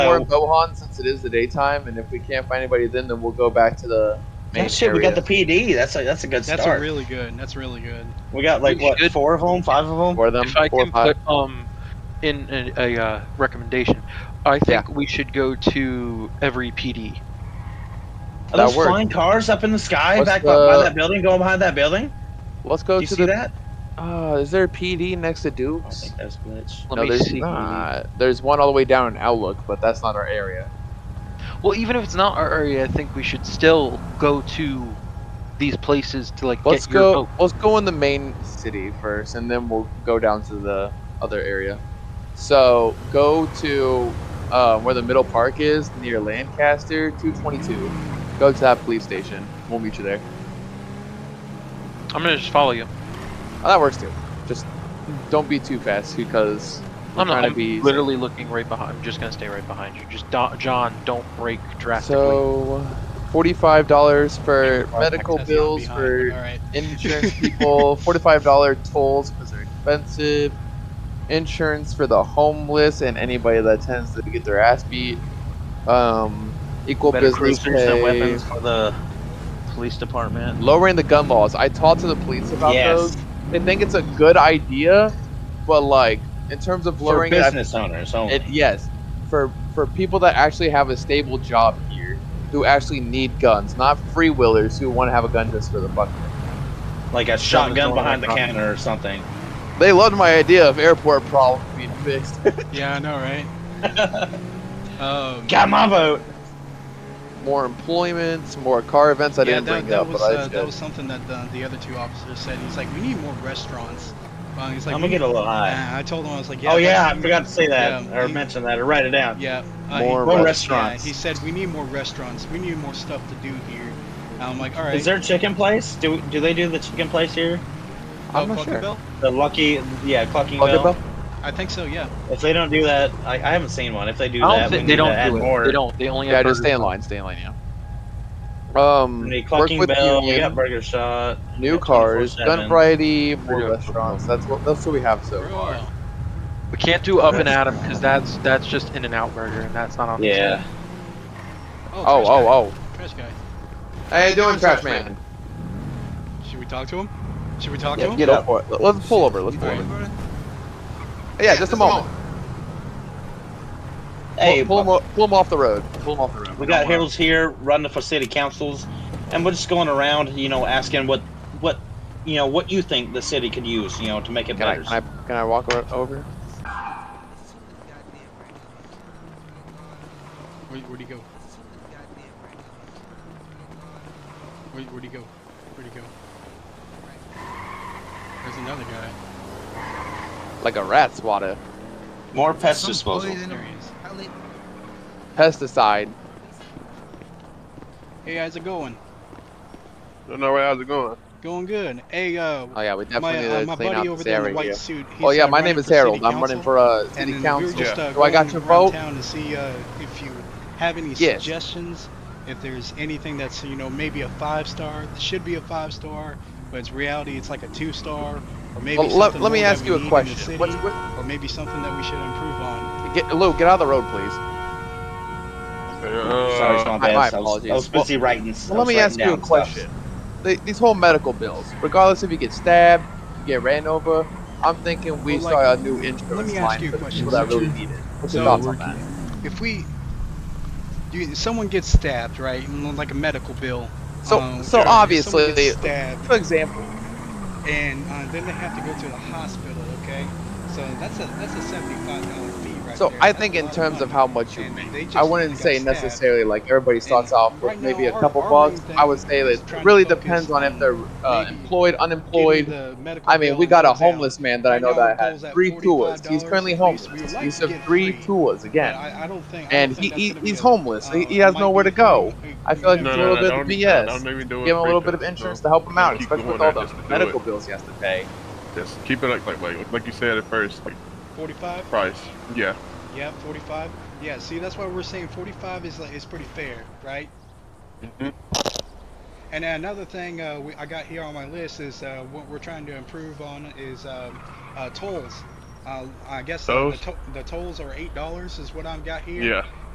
we're know. in Gohan since it is the daytime, and if we can't find anybody, then then we'll go back to the main Oh, shit, we got the area. PD. That's a that's a good That's start. really good. That's really good. we got like We what should- four of them, five of them. for them. If I four, can five. put um in a, a uh, recommendation, I think we should go to every PD. Are those That worked. flying cars up in the sky What's back by, by the- that building, going behind that building? Let's go Do you to see the. Oh, that? Uh, is there a PD next to I don't Duke's? think that's glitch. Let no, me there's see. not. There's one all the way down in Outlook, but that's not our area. Well, even if it's not our area, I think we should still go to these places to like Let's get your go. vote. Let's go in the main city first, and then we'll go down to the other area. So go to uh, where the middle park is near Lancaster, 222. Go to that police station. We'll meet you there. I'm gonna just follow you. Oh, that works too. Just don't be too fast because we're I'm not. trying I'm to be. literally looking right behind. I'm just gonna stay right behind you. Just do- John, don't break drastically. So, forty-five dollars for Car medical access not bills behind, for but all right. insurance people, forty-five dollar tolls because they're expensive, insurance for the homeless and anybody that tends to get their ass beat, um, equal Better business cruisers and pay, weapons for the police department. lowering the gun laws. I talked to the police about Yes, those. They think it's a good idea, but like in terms of for lowering it, I business owners only. it, yes, for for people that actually have a stable job here, who actually need guns, not freewheelers who want to have a gun just for the fuck. of like a shotgun going behind the around. counter or something. it. They loved my idea of airport problem being fixed. Yeah, I know, right? um, Got my vote. more employments, more car events. I yeah, didn't that, bring that up, was but I uh, should. that was something that the, the other two officers said. He's like, we need more restaurants. Uh, he's like, I'm "We gonna get a little high. Nah, I told him I was like, yeah, oh yeah, that's- I forgot to say that yeah, or he- mention that or write it down. Yeah, More uh, he, restaurants. More yeah, restaurants. he said we need more restaurants. We need more stuff to do here. And I'm like, all right. Is there a chicken place? Do do they do the chicken place here? I'm not Clucker sure. Bell? The Lucky, yeah, Clucking Talk Bell. about- I think so. Yeah. If they don't do that, I, I haven't seen one. If they do I that, don't we think need they to add don't do it. more. They don't. They only Yeah, have just burgers. stay in line. Stay in line. Yeah. Um, We work need Clucking with Bell. We union, got Burger Shot. new yeah, cars, gun 24/7. variety, more Yeah. restaurants. That's what that's what we have so far. Bro. We can't do up and at 'em 'cause because that's that's just in and out burger and that's not on. the Yeah. Oh, oh, oh. Trash guy. oh! How you doing, Trash Man? Should we talk to him? Should we talk to Yeah, him? get up. for it. Let's pull over. Let's All pull right, over. bro. Yeah, just a moment. Hey, pull, pull, 'em o- pull 'em off the road. Pull 'em off the road. we got Harold's here running for city councils, and we're just going around, you know, asking what what you know what you think the city could use, you know, to make it Can I, better. can I can I walk o- over? Where, where'd he go? Where, where'd he go? Where'd he go? There's another guy. Like a rat swatter. More pest disposal. There he is. Pesticide. Hey, how's it going? Don't know where how's it going. Going good. Hey, uh, Oh yeah, we definitely my, need uh, to my clean out buddy over this there in the area. white here. suit. he's, Oh yeah, uh, my name running is for Harold. city I'm running council. for uh, And city then council. We were just, uh, Do I got going your around vote? Town to see uh, if you have any Yes. suggestions. If there's anything that's you know maybe a five star, it should be a five star, but it's reality it's like a two star, or maybe Well, let, something let me more that ask we you need a in the question. city, What's, what, or maybe something that we should improve on. get, Lou, get out of the road, please. Uh, Sorry, it's my my- my bad. I, was, I apologies. was busy writing. I Well, let was me writing ask you a down question. stuff. They, these whole medical bills, regardless if you get stabbed, you get ran over, I'm thinking we Well, like, start a new insurance let me ask line you a for question. people that So really need it. What's your so thoughts on that? If we, you, someone gets stabbed, right, and like a medical bill. So- um, so if obviously someone gets they- stabbed, For example, and uh, then they have to go to the hospital. Okay, so that's a that's a seventy-five dollar fee, right so there. I That's think a in lot terms of money. how much you And make, they just I wouldn't got say stabbed. necessarily like everybody starts And off with right now, maybe a our- couple our main bucks. thing I would say is that trying it to really focus depends on if on they're uh, maybe employed, Getting unemployed. the medical I mean, bill we got a goes down. homeless man that I Right know now, that the bill's had at three tours. $45 He's currently at least. homeless. We would like He's to of get three free. tours again. But I, I don't think. I And don't think he- that's gonna he- he's be a- homeless. He- uh, he has might nowhere be to a go. thing. I feel like Yeah. it's a little bit of BS. Don't, even do it. Give him a little Freaking, bit of insurance so to help him out, keep especially going with all at the this to do medical bills he has to pay. Just keep it like, like like like you said at first, like 45. price. Yeah. Yeah, 45. Yeah, see, that's why we're saying 45 is like is pretty fair, right? Mhm. And then another thing uh, we, I got here on my list is uh, what we're trying to improve on is um, uh, tolls. Uh, I guess uh, the, Tolls? to- the tolls are eight dollars is what I've got here. Yeah.